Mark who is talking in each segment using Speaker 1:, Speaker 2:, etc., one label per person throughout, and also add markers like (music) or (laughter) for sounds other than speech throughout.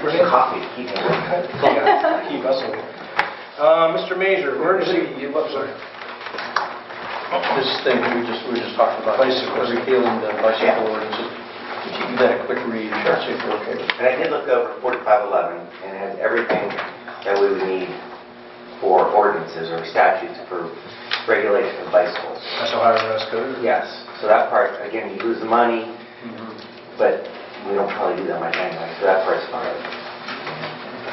Speaker 1: Brilliant.
Speaker 2: Coffee, keep going.
Speaker 1: Yeah, Keep us away. Uh, Mr. Major, emergency, you- oh, sorry.
Speaker 3: Oh, This thing we just, we just talked about, bicycle, repealing the bicycle ordinance, if you do that a quick read, and see if you're okay with it.
Speaker 2: And I did look over 4511, and it has everything that we would need for ordinances or statutes for regulation of bicycles.
Speaker 1: That's Ohio Revised Code?
Speaker 2: Yes, so that part, again, you lose the money,
Speaker 3: Mm-hmm.
Speaker 2: but we don't probably do that much anyway, so that part's fine.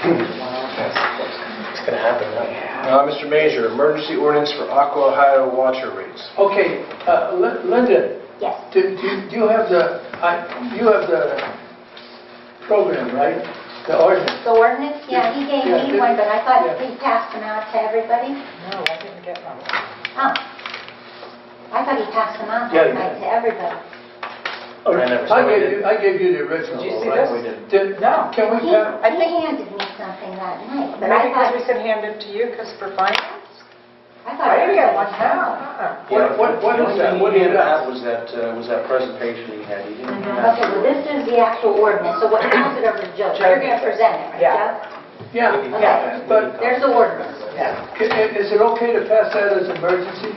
Speaker 3: It's gonna happen now.
Speaker 1: Uh, Mr. Major, emergency ordinance for Aqua Ohio water rates.
Speaker 4: Okay, uh, Lin- Linda,
Speaker 5: Yes,
Speaker 4: do do- do you have the, I- you have the program, right? The ordinance?
Speaker 5: the ordinance, yeah, he gave
Speaker 4: Yeah,
Speaker 5: me
Speaker 4: did-
Speaker 5: one, but I thought
Speaker 4: yeah.
Speaker 5: he passed them out to everybody.
Speaker 6: No, I didn't get one.
Speaker 5: Oh, I thought he passed them out
Speaker 4: Yeah, he
Speaker 5: that night to everybody.
Speaker 3: I never saw
Speaker 4: I
Speaker 3: it.
Speaker 4: gave you, I gave you the original.
Speaker 6: Did you see
Speaker 4: right?
Speaker 6: this?
Speaker 3: We did.
Speaker 4: Did-
Speaker 6: No.
Speaker 4: Can we,
Speaker 5: He
Speaker 4: have-
Speaker 6: I think-
Speaker 5: he handed me something that night, but I
Speaker 6: Maybe because we
Speaker 5: thought,
Speaker 6: said hand it to you because for finance?
Speaker 5: I thought.
Speaker 6: I didn't get one,
Speaker 5: everybody-
Speaker 6: no. uh-uh.
Speaker 4: What- what- what is that? What is
Speaker 3: The only thing he handed
Speaker 4: that?
Speaker 3: out was that, uh, was that presentation he had, he didn't have...
Speaker 5: Okay, well, this is the actual ordinance, so
Speaker 4: (clears throat)
Speaker 5: what, pass it over to Joe, you're going to present it, right,
Speaker 6: Yeah.
Speaker 5: Joe?
Speaker 4: yeah,
Speaker 5: Okay,
Speaker 4: but
Speaker 5: there's the ordinance.
Speaker 6: Yeah.
Speaker 4: can- i- is it okay to pass that as emergency?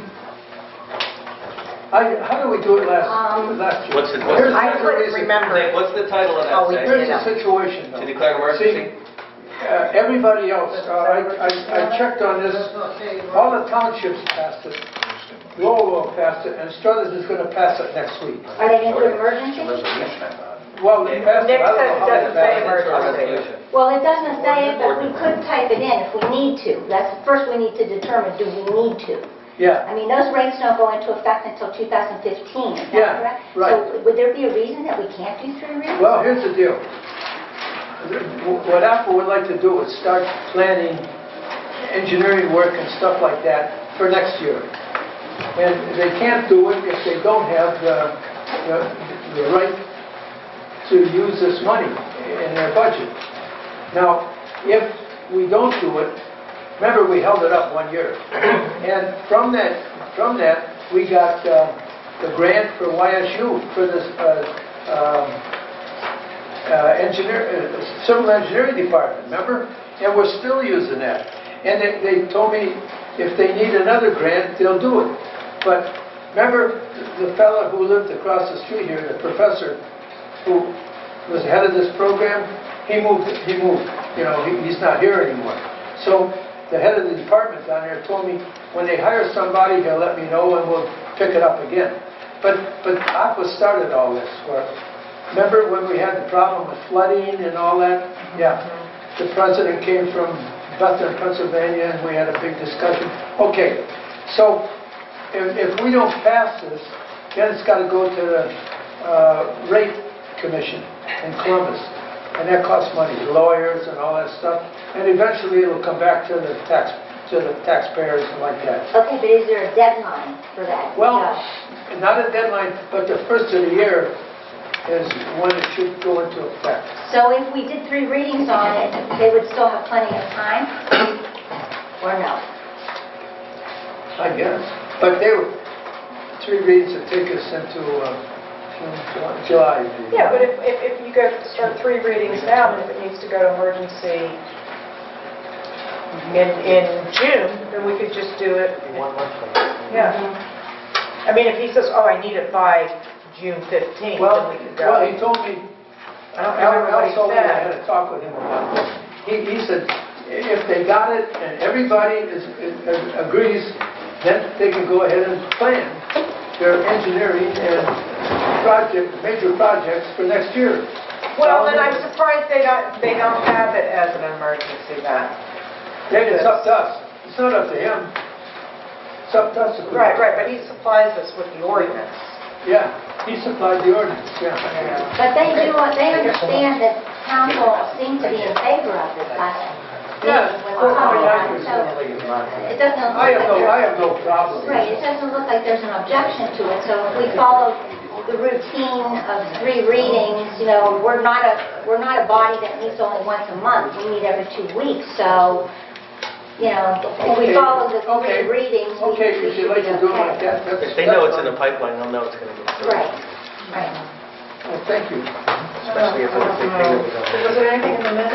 Speaker 4: I, how did we do it last,
Speaker 5: Um,
Speaker 4: last year?
Speaker 7: What's the- what's
Speaker 4: Here's
Speaker 7: the-
Speaker 6: I
Speaker 4: here's the
Speaker 6: couldn't
Speaker 4: reason.
Speaker 6: remember.
Speaker 7: Nick, what's the title of
Speaker 6: Oh, we
Speaker 7: that
Speaker 4: Here's
Speaker 7: section?
Speaker 4: the situation
Speaker 7: To
Speaker 4: though.
Speaker 7: declare emergency?
Speaker 4: See, uh, everybody else, uh, I, I I checked on this, all the townships passed it, Lowell passed it, and Struthers is gonna pass it next week.
Speaker 5: Are they going to do emergency?
Speaker 1: Resolution, I thought.
Speaker 4: Well, they passed it, I don't know how they
Speaker 6: Nick says it doesn't say
Speaker 4: passed it.
Speaker 7: Or
Speaker 6: emergency.
Speaker 7: resolution?
Speaker 5: Well, it doesn't say it, but we could type it in if we need to. That's, first we need to determine, do we need to?
Speaker 4: Yeah,
Speaker 5: I mean, those rates don't go into effect until 2015, is that
Speaker 4: Yeah,
Speaker 5: correct?
Speaker 4: right.
Speaker 5: So would there be a reason that we can't do three readings?
Speaker 4: well, here's the deal. What Apple would like to do is start planning engineering work and stuff like that for next year. And they can't do it if they don't have the, the- the right to use this money in their budget. Now, if we don't do it, remember, we held it up one year. And from that, from that, we got uh, the grant for YSU for this uh, um, uh, engineer, uh, civil engineering department, remember? And we're still using that. And they- they told me if they need another grant, they'll do it. But remember the fellow who lived across the street here, the professor, who was head of this program, he moved, he moved, you know, he- he's not here anymore. So the head of the department down there told me, when they hire somebody, they'll let me know and we'll pick it up again. But, but Aqua started all this work. Remember when we had the problem with flooding and all that? Yeah. The president came from Bethlehem, Pennsylvania, and we had a big discussion. Okay, so if, if we don't pass this, then it's got to go to the uh, rate commission in Columbus, and that costs money, lawyers and all that stuff, and eventually it'll come back to the tax, to the taxpayers and like that.
Speaker 5: Okay, but is there a deadline for that? Uh,
Speaker 4: Well,
Speaker 5: Josh?
Speaker 4: not a deadline, but the first of the year is when it should go into effect.
Speaker 5: So if we did three readings on it, they would still have plenty of time? Or no?
Speaker 4: I guess. But they were, three reads would take us into uh, June, July- July. maybe.
Speaker 6: Yeah, but if, if if you go, start three readings now, and if it needs to go to emergency in, in June, then we could just do it.
Speaker 3: One month from
Speaker 6: Yeah. I mean, if he says, oh, I need it by June 15th, then
Speaker 4: Well,
Speaker 6: we could
Speaker 4: well, he
Speaker 6: go.
Speaker 4: told me,
Speaker 6: I don't remember what he
Speaker 4: Al told me I had
Speaker 6: said.
Speaker 4: a talk with him about it. He, he said, if they got it and everybody is, is- agrees, then they can go ahead and plan their engineering and project, major projects for next year.
Speaker 6: Well, then I'm surprised they don't, they don't have it as an emergency then.
Speaker 4: Then it's up to us. It's not up to him. It's up to us. if we-
Speaker 6: Right, right, but he supplies us with the ordinance.
Speaker 4: Yeah, he supplied the ordinance, yeah.
Speaker 5: But they do, they understand that council seemed to be in favor of this last
Speaker 4: Yeah,
Speaker 5: meeting when
Speaker 4: that's what
Speaker 5: we voted
Speaker 4: I
Speaker 5: on it,
Speaker 4: was
Speaker 5: so it doesn't look
Speaker 4: I
Speaker 5: like
Speaker 4: have no, I
Speaker 5: there's...
Speaker 4: have no problem.
Speaker 5: Right, it doesn't look like there's an objection to it, so if we follow the routine of three readings, you know, we're not a, we're not a body that meets only once a month, we meet every two weeks, so, you know, if we
Speaker 4: Okay,
Speaker 5: follow the
Speaker 4: okay,
Speaker 5: three readings, we
Speaker 4: Okay,
Speaker 5: we
Speaker 4: if
Speaker 5: should
Speaker 4: you'd like
Speaker 5: be
Speaker 4: to do it like
Speaker 5: okay.
Speaker 4: that, that's...
Speaker 7: If they know it's in the
Speaker 4: that's
Speaker 7: pipeline, they'll know it's going to go through.
Speaker 5: Right, right.
Speaker 4: fine. Well, Thank you.
Speaker 3: Especially if it's a big thing that we don't-
Speaker 6: Was there anything in the minutes?